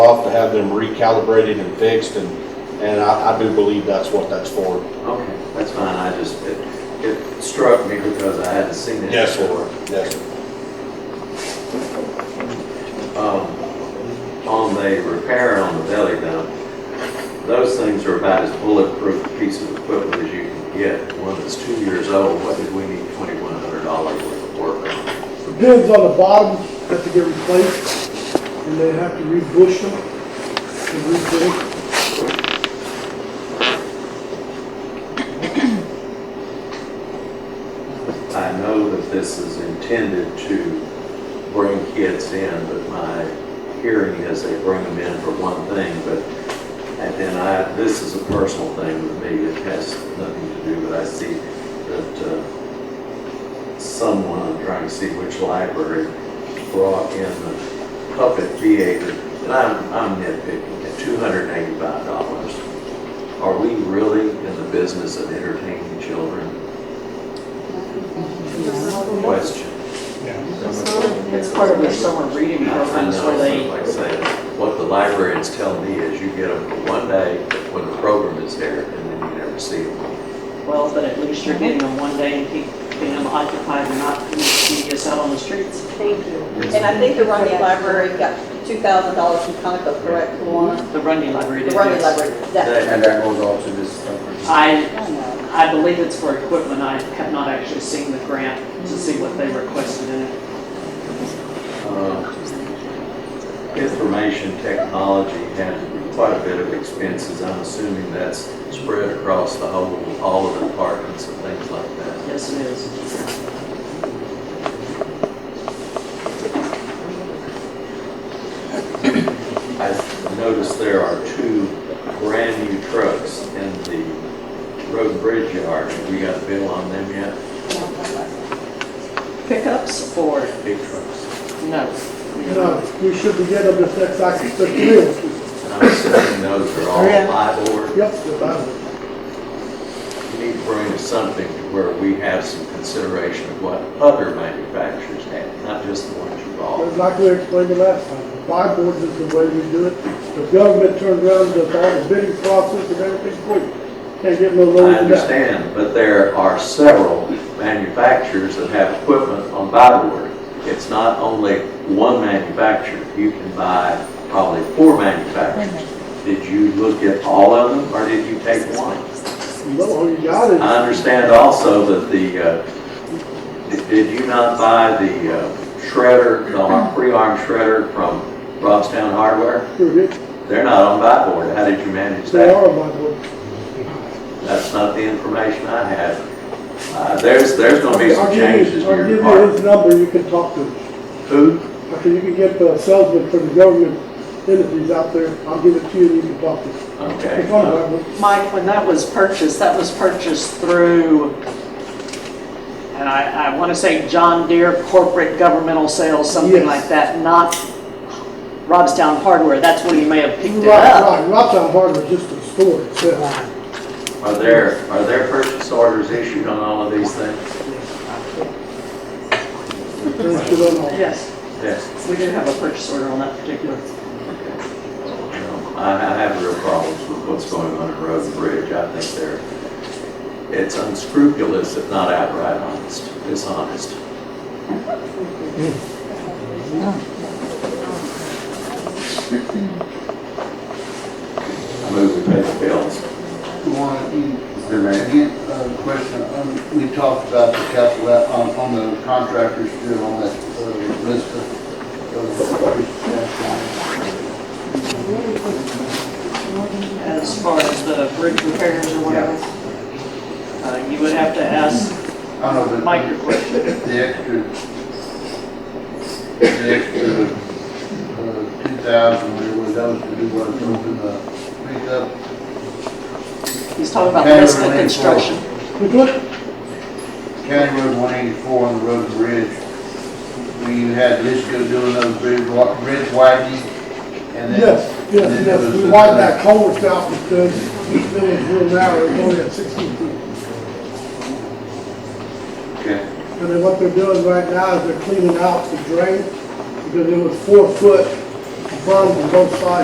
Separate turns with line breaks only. off to have them recalibrated and fixed, and, and I, I do believe that's what that's for.
Okay, that's fine, I just, it, it struck me because I hadn't seen it before.
Yes, sir.
Um, On the repair on the belly dump, those things are about as bulletproof a piece of equipment as you can get. One that's two years old, what did we need twenty-one hundred dollars worth of work on?
The bins on the bottom have to get replaced, and they have to rebush them, and rebuild.
I know that this is intended to bring kids in, but my hearing is they bring them in for one thing, but, and then I, this is a personal thing with me, it has nothing to do, but I see that uh, someone, I'm trying to see which library, brought in the puppet theater, and I'm, I'm nitpicking, at two hundred and eighty-five dollars. Are we really in the business of entertaining children? Question.
It's part of their summer reading
I
programs where
know,
they,
like I say, what the librarians tell me is you get them for one day when the program is there, and then you never see them.
well, but at least you're getting them one day and keep- keeping them occupied and not tedious out on the streets.
Thank you. And I think the Runny Library got two thousand dollars from Conoco, correct, Luana?
The Runyon Library
The
did
Runny
this.
Library, that,
And that goes off to this stuff.
I,
I don't know.
I believe it's for equipment. I have not actually seen the grant to see what they requested in it.
Uh, Information technology had quite a bit of expenses, I'm assuming that's spread across the whole, all of the departments and things like that.
Yes, it is.
I noticed there are two brand-new trucks in the road and bridge yard, have we got a bill on them yet?
Pickups or,
Big trucks.
no.
No, we should be getting them this next, act- this year.
I'm assuming those are all
Yeah.
LIBOR.
Yep, the bottom.
You need to bring us something to where we have some consideration of what other manufacturers have, not just the ones you
But
bought.
like we explained the last time, buy boards is the way we do it. The government turns around, does all the bidding process and everything for you. Can't get no
I
lower than that.
understand, but there are several manufacturers that have equipment on buy board. It's not only one manufacturer, you can buy probably four manufacturers. Did you look at all of them, or did you take one?
No, all you got is,
I understand also that the, uh, did- did you not buy the uh, shredder, the ar- pre-arm shredder from Robstown Hardware?
you're
They're not on buy board. How did you manage
they
that?
are my board.
That's not the information I had. Uh, There's, there's going to be
I'll
some
give you-
changes to your
I'll give you his
department.
number, you can talk to him.
Who?
Okay, you can get the salesman for the government entities out there, I'll give it to you and you can talk to him.
Okay.
It's on the record.
Mike, when that was purchased, that was purchased through, and I, I want to say John Deere Corporate Governmental Sales, something
Yes.
like that, not Robstown Hardware. That's when he may have picked it
Right,
up.
right, Rocktown Hardware is just a store itself.
Are there, are there purchase orders issued on all of these things?
There's shit on all.
Yes,
Yes.
we did have a purchase order on that particular.
No, I I have real problems with what's going on in Road and Bridge. I think they're, it's unscrupulous, if not outright honest, dishonest. I move we pay the bills.
Is there a second uh, question? Um, We talked about the capital, out- on, on the contractors, did on that uh, list of.
As far as the bridge repairs or whatever, uh, you would have to ask
I don't know, but.
Mike your question.
The extra, the extra, uh, two thousand, there was, that was to do what, something, uh, pick up.
He's talking about
Cameron
Liska
Lane
Construction.
But look,
County Road one eighty-four on the road and bridge. We had Lisco doing those bridge, wa- bridge widening and then.
yes,
and then
yes,
there was
yes, we
this,
wiped
uh,
that culvert out because this village real narrow, it's only at sixteen feet.
Okay,
And then what they're doing right now is they're cleaning out the drain because it was four foot berm on both sides.